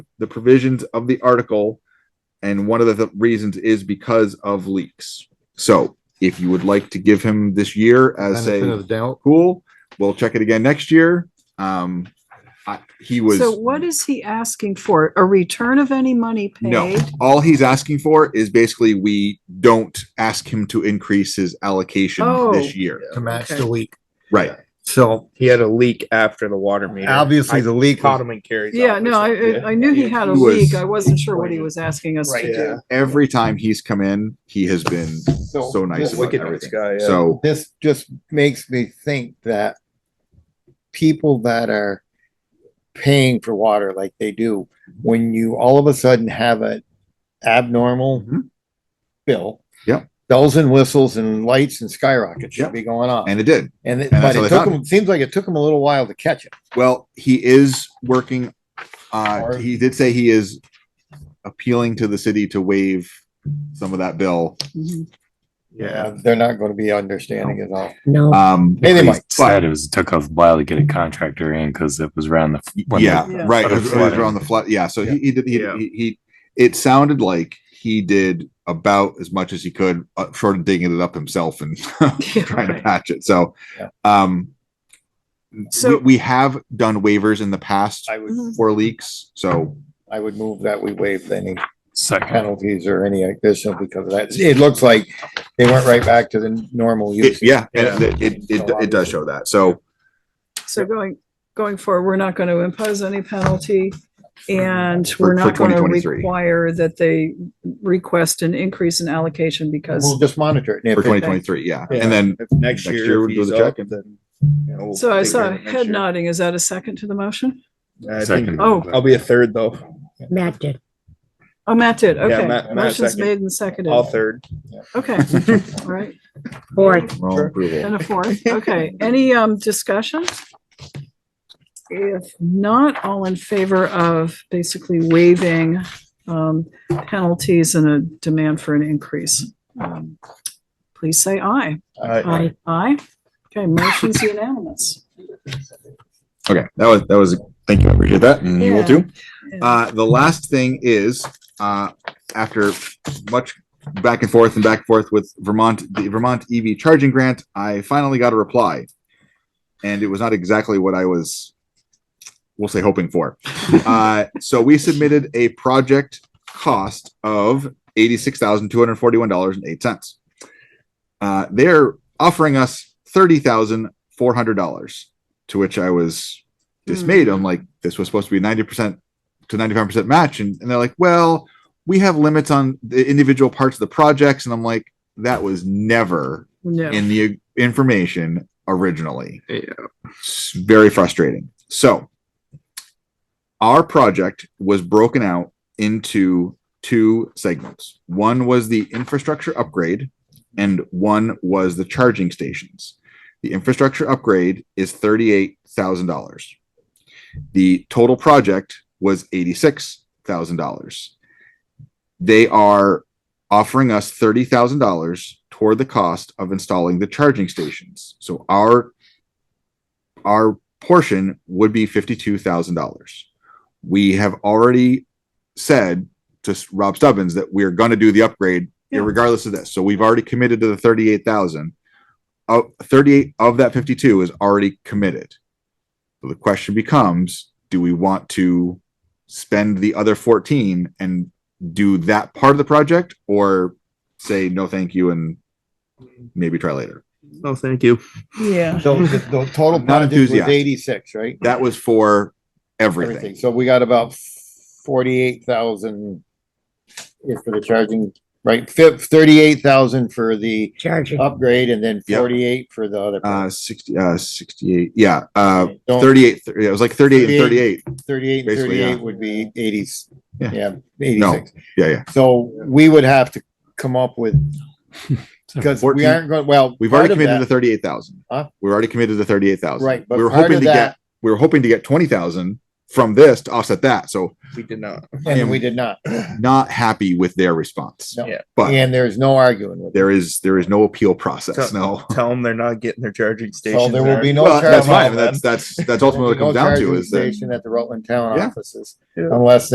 the provisions of the article. And one of the th- reasons is because of leaks. So if you would like to give him this year as Benefit a of the doubt. cool, we'll check it again next year. Um, I, he was. So what is he asking for? A return of any money No, paid? all he's asking for is basically we don't ask him to increase his allocation Oh. this year. to match Okay. the leak. Right. So He had a leak after the water meter. obviously I the leak, caught was- him and carried. Yeah, no, I, I- I knew he had a He was- leak. I wasn't sure what he was asking us to do. Every time he's come in, he has been so nice about Wicked everything. guy. yeah. So this just makes me think that people that are paying for water like they do, when you all of a sudden have an abnormal Mhm. bill. Yep. Bells and whistles and lights and skyrockets Yep. should be going off. and it did. And it, and but that's how it they took found them, seems like it took them a little while to catch it. Well, he is working. Uh, Or- he did say he is appealing to the city to waive some of that bill. Mhm. Uh, They're not going to be understanding at all. No. Um, Hey, but- they might. said it was took a while to get a contractor in because it was around the when the- yeah, Yeah. right. Sort of It was around the flood. Yeah. So he, he did, he, Yeah. he, he, it sounded like he did about as much as he could, uh, short of digging it up himself and trying to Right. patch it. So, Yeah. um, we, So- we have done waivers in the past I would, Mhm. for leaks. So I would move that we waive any second. penalties or any additional because of that. It looks like they went right back to the normal it, use. yeah, Yeah. and It, it, it, it does show that. So So going, going forward, we're not going to impose any penalty and we're For- not for going to 2023. require that they request an increase in allocation We'll because, just monitor it. and for if it. twenty twenty-three, yeah. And then If next next year year, we'll if do he's the check up, and- then. you know, we'll so I take care saw of a it next head year. nodding. Is that a second to the motion? I think Second. Oh. I'll be a third though. Matt did. Oh, Matt did. Okay. Matt- Matt Motion's seconded. made and seconded. All third. Okay. All right. Fourth. we're all Sure. approval. And a fourth, okay. Any um discussion? If not, all in favor of basically waiving um penalties and a demand for an increase. um, Please say aye. Aye. Aye. Okay, motion's unanimous. Okay, that was, that was, thank you, I appreciate that, and you will Yeah. too. Uh, the last thing is, uh, after much back and forth and back and forth with Vermont, the Vermont EV charging grant, I finally got a reply. And it was not exactly what I was, we'll say, hoping for. Uh, so we submitted a project cost of eighty-six thousand, two hundred and forty-one dollars and eight cents. Uh, they're offering us thirty thousand, four hundred dollars, to which I was dismayed. I'm like, this was supposed to be ninety percent to 95% match and, and they're like well we have limits on the individual parts of the projects and i'm like that was never No, in the information originally It's very frustrating so our project was broken out into two segments one was the infrastructure upgrade and one was the charging stations the infrastructure upgrade is $38000 the total project was $86,000. They are offering us $30,000 toward the cost of installing the charging stations. So our our portion would be $52,000. We have already said to S- Rob Stubbins that we're going to do the upgrade Yeah. regardless of this. So we've already committed to the 38,000. Uh, 38 of that 52 is already committed. So the question becomes, do we want to spend the other 14 and do that part of the project or say no thank you and maybe try later? No, thank you. yeah, So the, the total Not project was enthusiastic. eighty-six, right? That was for everything. Everything. So we got about forty-eight thousand is for the charging, right? Thirty-eight thousand for the Charging. upgrade and then Yep. forty-eight for the other. Uh part. 60 uh 68 yeah uh Don't- 38 th- it was like 38 and 38 Thirty-eight, and basically, yeah. thirty-eight would be eighties, Yeah. yeah, eighty-six. yeah yeah So we would have to come up with, because we 14 aren't going, well. we've already part of committed to that- 38,000 Huh? we're already committed to 38,000 Right, but we were part hoping of to that- get we were hoping to get 20,000 from this to offset that so We did not. And we did not. not happy with their response No. Yeah. but And there's no arguing with it. there is there is no appeal process So- no Tell them they're not getting their charging station. So there will be no. well, charge that's fine on that's that's that's them. ultimately what it comes There'll be down no to charging is that Station at the Rutland Town Yeah. offices, Yeah. unless